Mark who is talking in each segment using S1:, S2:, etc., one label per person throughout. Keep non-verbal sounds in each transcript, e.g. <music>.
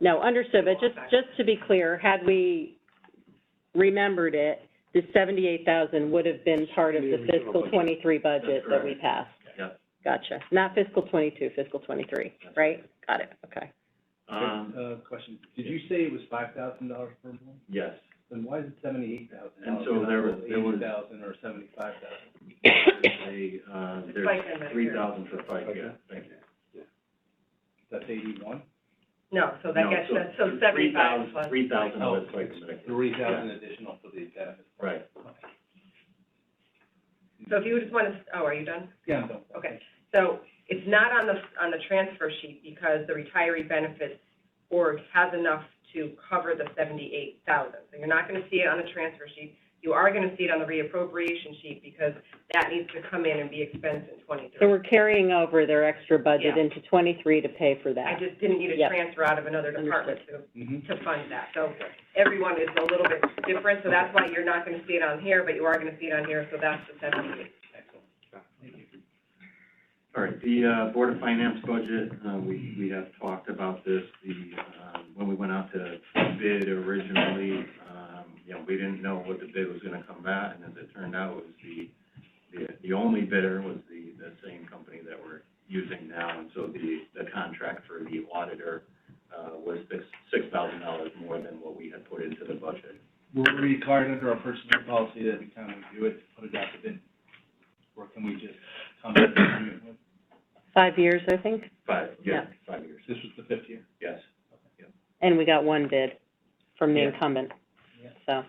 S1: No, understood, but just, just to be clear, had we remembered it, the seventy-eight thousand would have been part of the fiscal twenty-three budget that we passed.
S2: Yep.
S1: Gotcha, not fiscal twenty-two, fiscal twenty-three, right? Got it, okay.
S2: Um,
S3: Uh, question, did you say it was five thousand dollars per month?
S2: yes.
S3: Then why is it seventy-eight thousand
S2: And
S3: dollars?
S2: so there was- there was-
S3: Eighty thousand or seventy-five thousand?
S2: There's a, uh,
S4: FICA,
S2: there's
S4: Medicare.
S2: three thousand for FICA, thank you.
S3: That's eighty-one?
S4: No, so that
S2: No,
S4: gets,
S2: so
S4: that's, so
S2: Three
S4: seventy-five
S2: thousand,
S4: plus.
S2: three thousand
S3: Oh,
S2: was FICA, Medicare.
S3: Three thousand additional for the benefits.
S2: Right.
S4: So if you just want to, oh, are you done?
S3: Yeah, no.
S4: Okay, so it's not on the, on the transfer sheet because the retiree benefits org has enough to cover the seventy-eight thousand. So you're not gonna see it on the transfer sheet. You are gonna see it on the reappropriation sheet because that needs to come in and be expensed in
S1: So
S4: twenty-three.
S1: we're carrying over their extra budget
S4: Yeah.
S1: into twenty-three to pay for
S4: I
S1: that.
S4: just didn't need a
S1: Yep.
S4: transfer out of another department to,
S3: Mhm.
S4: to fund that. So everyone is a little bit different, so that's why you're not gonna see it on here, but you are gonna see it on here, so that's the seventy-eight.
S3: Excellent.
S2: All right, the, uh, Board of Finance budget, uh, we, we have talked about this, the, um, when we went out to bid originally, um, you know, we didn't know what the bid was gonna come back, and as it turned out, it was the, the, the only bidder was the, the same company that we're using now, and so the, the contract for the auditor, uh, was six, six thousand dollars more than what we had put into the budget.
S3: We're required under our personnel policy that every time we do it, to put it out to bid, or can we just come to an agreement with?
S1: Five years, I think,
S2: Five, yeah,
S1: Yeah.
S2: five years,
S3: This was the fifth year.
S2: yes.
S1: and we got one bid from the
S2: Yeah.
S1: incumbent,
S3: Yeah.
S1: so.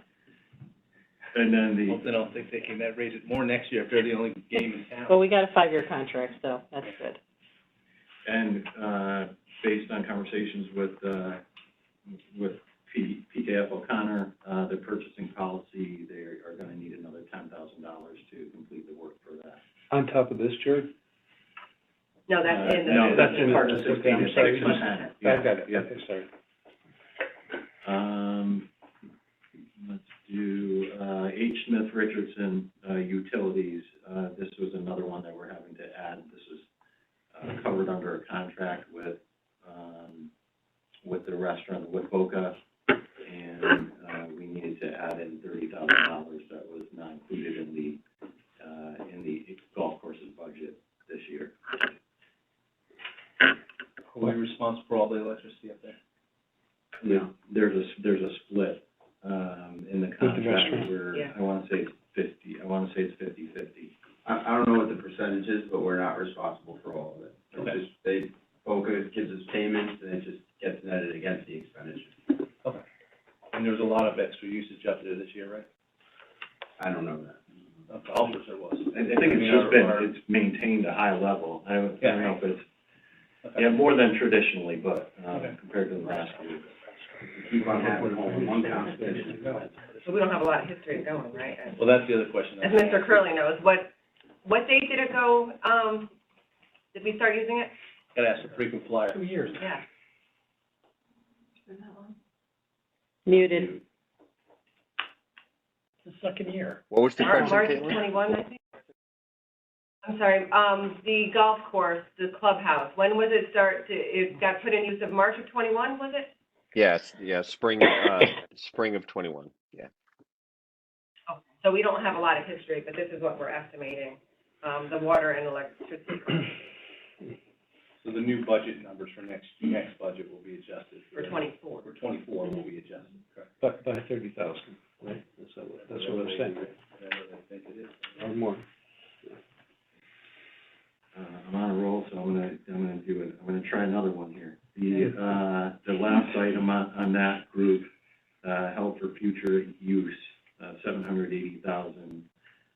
S2: And then the.
S3: Well, then I don't think they can raise it more next year if they're the only game in town.
S1: Well, we got a five-year contract, so that's good.
S2: And, uh, based on conversations with, uh, with P, PKF O'Connor, uh, their purchasing policy, they are gonna need another ten thousand dollars to complete the work for that.
S5: On top of this, Jared?
S4: No, that's in the.
S2: Uh, No, that's
S5: in the-
S2: part of sixteen,
S5: I'm
S2: it's
S5: sorry,
S2: six
S5: you just-
S2: percent.
S5: I got it,
S2: Yeah,
S5: okay, sorry.
S2: Um, let's do, uh, H. Smith Richardson, uh, utilities. Uh, this was another one that we're having to add. This is, uh, covered under a contract with, um, with the restaurant, with Boca. And, uh, we needed to add in thirty thousand dollars that was not included in the, uh, in the golf courses budget this year.
S3: Are we responsible for all the electricity up there?
S2: Yeah, there's a, there's a split, um, in the
S5: the
S2: contract
S5: restaurant.
S2: where,
S4: Yeah.
S2: I wanna say it's fifty, I wanna say it's fifty-fifty.
S6: I, I don't know what the percentage is, but we're not responsible for all of it.
S3: Okay.
S6: It's just, they, FOCA gives us payments, and it just gets netted against the expenditure.
S3: And there was a lot of extra usage up there this year, right?
S6: I don't know that.
S3: Of the officers there was.
S2: I, I think it's just been, it's maintained a high level, I don't, I don't know if it's, yeah, more than traditionally, but,
S3: Okay.
S2: um, compared to the last year.
S6: We keep on having only one competition.
S4: So we don't have a lot of history of going, right? And-
S3: Well, that's the other question. I
S4: As
S3: had.
S4: Mr. Curley knows, what, what date did it go, um, did we start using it?
S3: Gotta ask the frequent flyer.
S5: Two years.
S4: Yeah.
S1: Muted.
S5: The second year.
S7: What was the
S4: Mar-
S7: question,
S4: March
S7: Caitlin?
S4: twenty-one, I think? I'm sorry, um, the golf course, the clubhouse, when was it start, to- it got put in use of March of twenty-one, was it?
S7: Yes, yeah, spring, uh, spring of twenty-one, yeah.
S4: Okay. So we don't have a lot of history, but this is what we're estimating, um, the water and electricity
S3: So the new budget numbers for next, next budget will be adjusted.
S4: for twenty-four.
S3: For twenty-four will be adjusted, correct?
S5: By, by thirty thousand, right? That's what, that's what I'm saying,
S3: Whatever they think it is.
S5: or more.
S2: Uh, I'm on a roll, so I'm gonna, I'm gonna do it, I'm gonna try another one here. The, uh, the last item on, on that group, uh, held for future use, uh, seven hundred eighty thousand.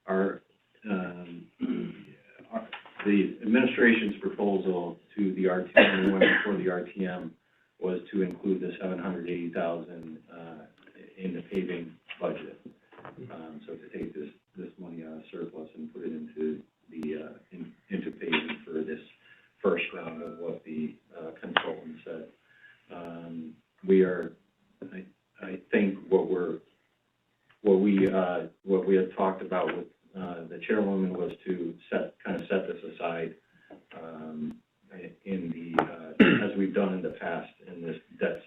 S2: Our, um, <clears throat> our- the administration's proposal to the RTM, when for the RTM, was to include the seven hundred eighty thousand, uh, in the paving budget. Um, so to take this, this money out of surplus and put it into the, uh, in, into payment for this first round of what the, uh, consultant said. Um, we are, I, I think what we're, what we, uh, what we had talked about with, uh, the chairwoman was to set, kind of set this aside, um, in the, uh,